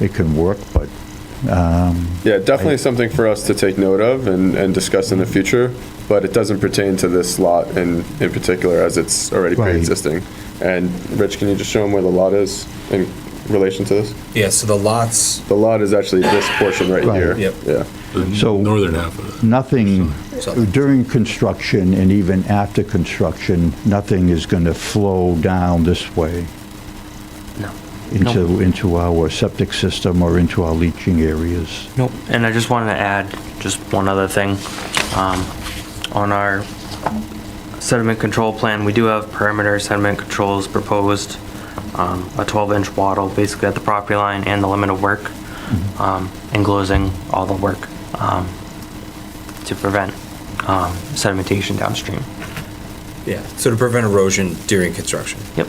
it can work, but Yeah, definitely something for us to take note of and, and discuss in the future, but it doesn't pertain to this lot in, in particular as it's already Right. pre-existing. And Rich, can you just show them where the lot is in relation to this? Yeah, so the lots, The lot is actually this portion right Right. here. Yep. Yeah. So- the northern half of it. nothing So- during construction and even after construction, nothing is going to flow down this way No. into, into our septic system or into our leaching areas. Nope. And I just wanted to add just one other thing. Um, on our sediment control plan, we do have perimeter sediment controls proposed. Um, a 12-inch wattle basically at the property line and the limit of work, um, enclosing all the work, um, to prevent, um, sedimentation downstream. yeah, so to prevent erosion during construction. Yep.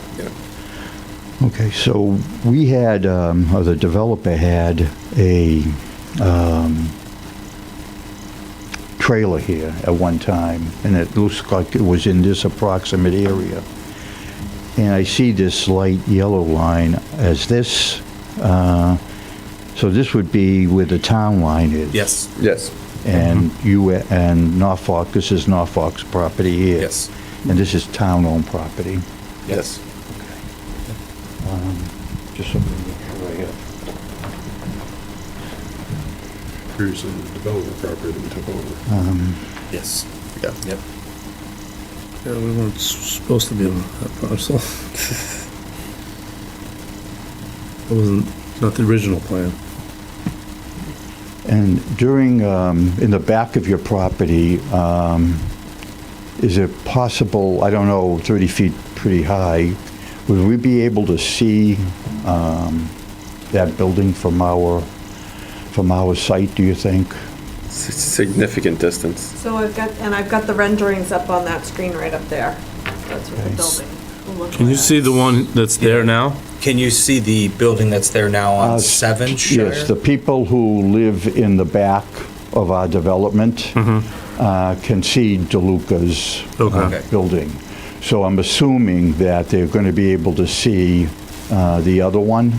Okay, so we had, um, or the developer had a um, trailer here at one time, and it looks like it was in this approximate area. And I see this light yellow line as this, uh, so this would be where the town line is. Yes, Mm-hmm. Yes. And you, and Norfolk, this is Norfolk's property here. Yes. And this is town-owned property. yes. Just so we make sure I have- Previously, the development property that we took over. Yes. Yeah. Yep. Yeah, we weren't s- supposed to be on that parcel. It wasn't, not the original plan. And during, um, in the back of your property, um, is it possible, I don't know, 30 feet pretty high, would we be able to see um, that building from our, from our site, do you think? S- Significant distance. So I've got, and I've got the renderings up on that screen right up there. That's what the Nice. building will look like. Can you see the one that's there now? Can you see the building that's there now Uh, on s- Seven Shire? Yes, the people who live in the back of our development uh, can see DeLuca's uh, Mm-hmm. Okay. building. So I'm assuming that they're going to be able to see uh, the other one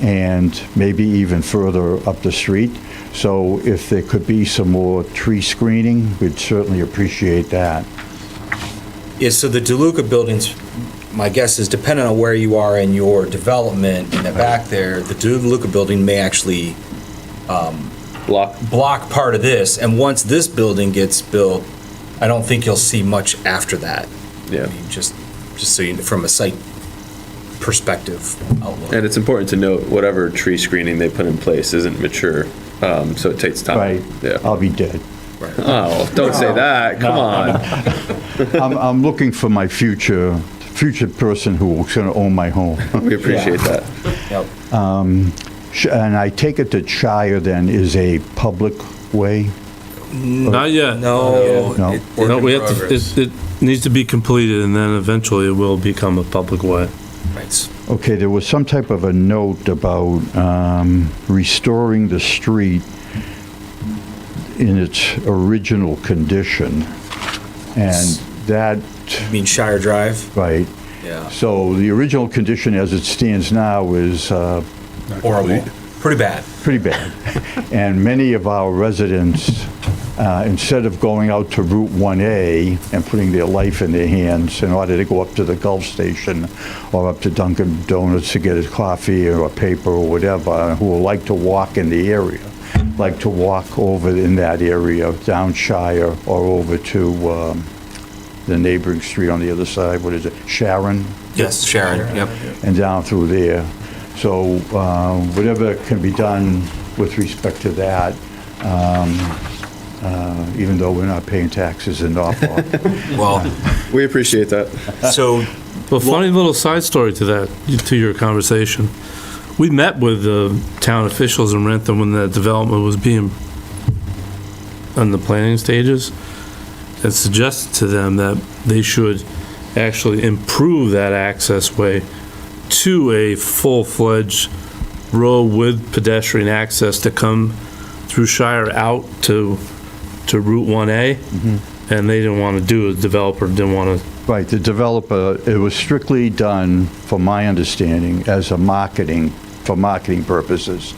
and maybe even further up the street. So if there could be some more tree screening, we'd certainly appreciate that. Yeah, so the DeLuca buildings, my guess is depending on where you are in your development in the back there, the DeLuca building may actually um, Block. block part of this, and once this building gets built, I don't think you'll see much after that. Yeah. I mean, Just, just so you, from a site perspective outlook. And it's important to note, whatever tree screening they put in place isn't mature, um, so it takes time. Right? Yeah. I'll be dead. Oh, don't say that. Come on. I'm, I'm looking for my future, future person who's going to own my home. We appreciate that. Yep. Sh- And I take it that Shire then is a public way? Not yet. No. No. Uh, oh, it- No, work we in have to, progress. it, it needs to be completed and then eventually it will become a public way. Right. Okay, there was some type of a note about um, restoring the street in its original condition. And that, I mean Shire Drive, right, yeah, so the original condition as it stands now is uh, horrible, pretty bad. pretty bad. And many of our residents, uh, instead of going out to Route 1A and putting their life in their hands in order to go up to the Gulf Station or up to Dunkin' Donuts to get a coffee or a paper or whatever, who like to walk in the area, like to walk over in that area, down Shire or over to um, the neighboring street on the other side, what is it, Sharon? Yes, Sharon, yep. and down through there. So uh, whatever can be done with respect to that, um, uh, even though we're not paying taxes in Norfolk. Well, We appreciate that. so Well, funny little side story to that, to your conversation. We met with the town officials in Rentham when that development was being on the planning stages and suggested to them that they should actually improve that access way to a full-fledged road with pedestrian access to come through Shire out to, to Route 1A. And they didn't want to do, it. the developer didn't want to Right, the developer, it was strictly done, from my understanding, as a marketing, for marketing purposes.